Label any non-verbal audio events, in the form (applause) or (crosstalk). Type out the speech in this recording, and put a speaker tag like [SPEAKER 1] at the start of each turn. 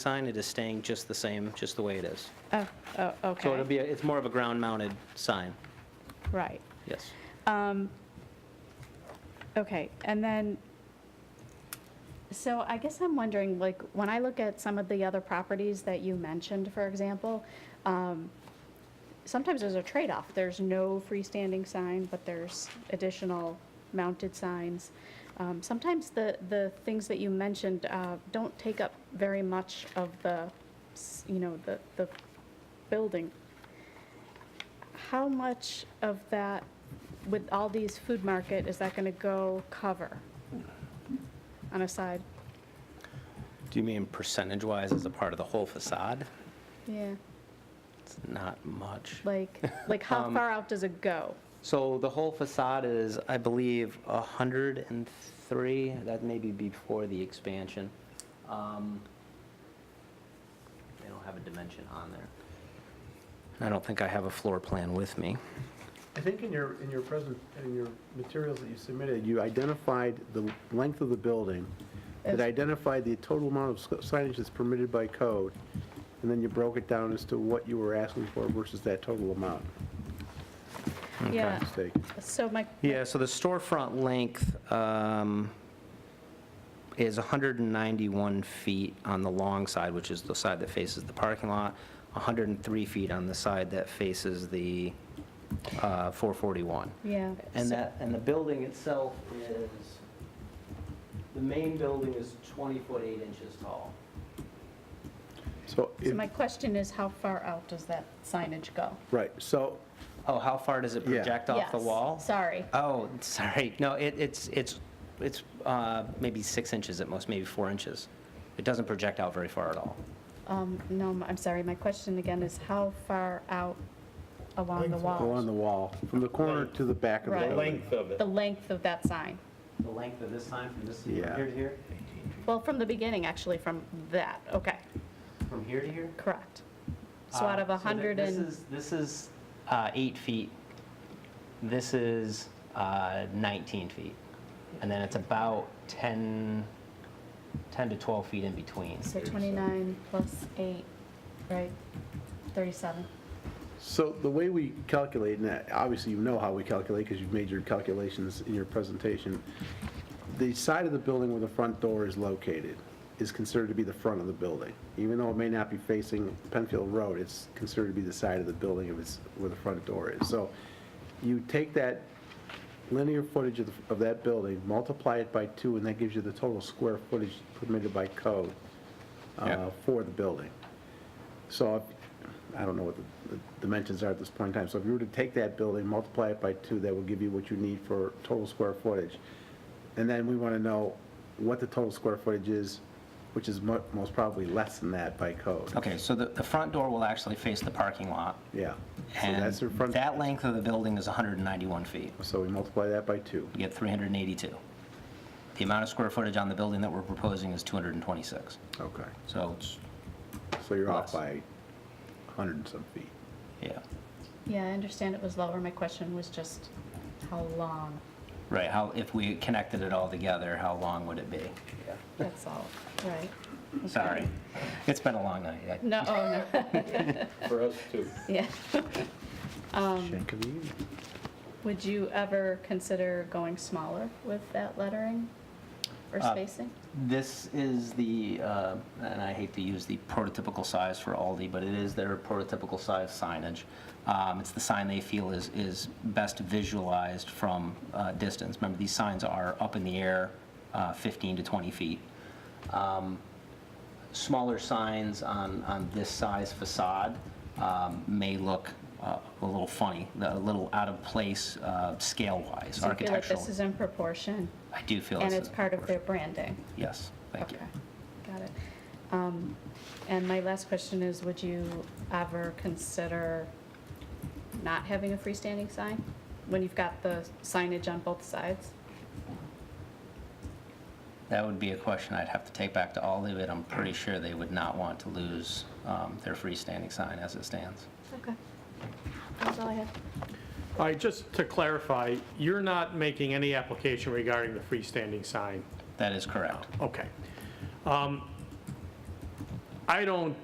[SPEAKER 1] sign, it is staying just the same, just the way it is.
[SPEAKER 2] Oh, oh,
[SPEAKER 1] So it'll
[SPEAKER 2] okay,
[SPEAKER 1] be, a- it's more of a ground-mounted sign,
[SPEAKER 2] right.
[SPEAKER 1] yes.
[SPEAKER 2] Um, Okay, and then, so I guess I'm wondering, like, when I look at some of the other properties that you mentioned, for example, um, sometimes there's a trade-off. There's no freestanding sign, but there's additional mounted signs. Um, Sometimes the, the things that you mentioned uh, don't take up very much of the, s- you know, the, the building. How much of that, with all these food market, is that going to go cover on a side?
[SPEAKER 1] Do you mean percentage-wise as a part of the whole facade?
[SPEAKER 2] Yeah,
[SPEAKER 1] It's not much.
[SPEAKER 2] (laughs) like, like how
[SPEAKER 1] Um,
[SPEAKER 2] far out does it go?
[SPEAKER 1] So the whole facade is, I believe, 103, that may be before the expansion. Um, They don't have a dimension on there. I don't think I have a floor plan with me.
[SPEAKER 3] I think in your, in your present, in your materials that you submitted, you identified the length of the building, it
[SPEAKER 2] As-
[SPEAKER 3] identified the total amount of signage that's permitted by code, and then you broke it down as to what you were asking for versus that total amount.
[SPEAKER 2] Yeah,
[SPEAKER 3] Mistake.
[SPEAKER 2] so my,
[SPEAKER 1] Yeah, so the storefront length um, is 191 feet on the long side, which is the side that faces the parking lot, 103 feet on the side that faces the uh, 441.
[SPEAKER 2] yeah.
[SPEAKER 1] And
[SPEAKER 2] so-
[SPEAKER 1] that, and the building itself is, the main building is 20 foot 8 inches tall.
[SPEAKER 3] So,
[SPEAKER 2] So
[SPEAKER 3] if-
[SPEAKER 2] my question is, how far out does that signage go?
[SPEAKER 3] right, so,
[SPEAKER 1] Oh, how far does it
[SPEAKER 3] Yeah.
[SPEAKER 1] project off the
[SPEAKER 2] Yes,
[SPEAKER 1] wall?
[SPEAKER 2] Sorry.
[SPEAKER 1] Oh, (laughs) sorry. No, it, it's, it's, it's uh, maybe six inches at most, maybe four inches. It doesn't project out very far at all.
[SPEAKER 2] Um, No, I'm- I'm sorry, my question again is, how far out along the
[SPEAKER 3] go on
[SPEAKER 2] wall?
[SPEAKER 3] the wall, from the corner to the back of the
[SPEAKER 2] Right.
[SPEAKER 3] building.
[SPEAKER 4] length of it.
[SPEAKER 2] The length of that sign?
[SPEAKER 1] The length of this sign from this,
[SPEAKER 3] Yeah. here to
[SPEAKER 1] here,
[SPEAKER 2] Well, from the beginning, actually, from that, okay,
[SPEAKER 1] from here to here?
[SPEAKER 2] correct. So out of
[SPEAKER 1] Uh,
[SPEAKER 2] a 100
[SPEAKER 1] th-
[SPEAKER 2] and,
[SPEAKER 1] This is, this is uh, eight feet, this is uh, 19 feet, and then it's about 10, 10 to 12 feet in between.
[SPEAKER 2] so 29 plus 8, right, 37.
[SPEAKER 3] So the way we calculate, and that- obviously you know how we calculate because you've made your calculations in your presentation, the side of the building where the front door is located is considered to be the front of the building. Even though it may not be facing Penfield Road, it's considered to be the side of the building if it's where the front door is. So you take that linear footage of, the- of that building, multiply it by two, and that gives you the total square footage permitted by code uh, for the building. So if- I don't know what the the dimensions are at this point in time. So if you were to take that building, multiply it by two, that will give you what you need for total square footage. And then we want to know what the total square footage is, which is mo- most probably less than that by code.
[SPEAKER 1] Okay, so the, the front door will actually face the parking lot,
[SPEAKER 3] Yeah. So
[SPEAKER 1] and
[SPEAKER 3] that's the front.
[SPEAKER 1] that length of the building is 191 feet.
[SPEAKER 3] So we multiply that by two.
[SPEAKER 1] We get 382. The amount of square footage on the building that we're proposing is 226.
[SPEAKER 3] Okay.
[SPEAKER 1] So, it's-
[SPEAKER 3] So you're
[SPEAKER 1] Less.
[SPEAKER 3] off by 100 and some feet.
[SPEAKER 1] yeah,
[SPEAKER 2] Yeah, I understand it was lower, my question was just how long,
[SPEAKER 1] right, how, if we connected it all together, how long would it be?
[SPEAKER 2] that's all, right?
[SPEAKER 1] Sorry, it's been a long night. I-
[SPEAKER 2] No, oh,
[SPEAKER 1] (laughs)
[SPEAKER 2] no,
[SPEAKER 4] For us too.
[SPEAKER 2] yeah.
[SPEAKER 3] Shank of the evening.
[SPEAKER 2] Would you ever consider going smaller with that lettering or
[SPEAKER 1] Uh,
[SPEAKER 2] spacing?
[SPEAKER 1] This is the, uh, and I hate to use the prototypical size for Aldi, but it is their prototypical size signage. Um, It's the sign they feel is, is best visualized from uh, distance. Remember, these signs are up in the air, uh, 15 to 20 feet. Um, Smaller signs on, on this size facade um, may look uh, a little funny, a little out of place uh, scale-wise,
[SPEAKER 2] Do you feel like
[SPEAKER 1] architectural.
[SPEAKER 2] this is in proportion,
[SPEAKER 1] I do feel
[SPEAKER 2] and
[SPEAKER 1] this
[SPEAKER 2] it's
[SPEAKER 1] is
[SPEAKER 2] part of their
[SPEAKER 1] proportion.
[SPEAKER 2] branding?
[SPEAKER 1] Yes, thank you.
[SPEAKER 2] Okay, got it. Um, And my last question is, would you ever consider not having a freestanding sign when you've got the signage on both sides?
[SPEAKER 1] That would be a question I'd have to take back to Aldi, but I'm pretty sure they would not want to lose um, their freestanding sign as it stands.
[SPEAKER 2] Okay. That's all I have.
[SPEAKER 5] All right, just to clarify, you're not making any application regarding the freestanding sign?
[SPEAKER 1] That is correct.
[SPEAKER 5] Okay. Um, I don't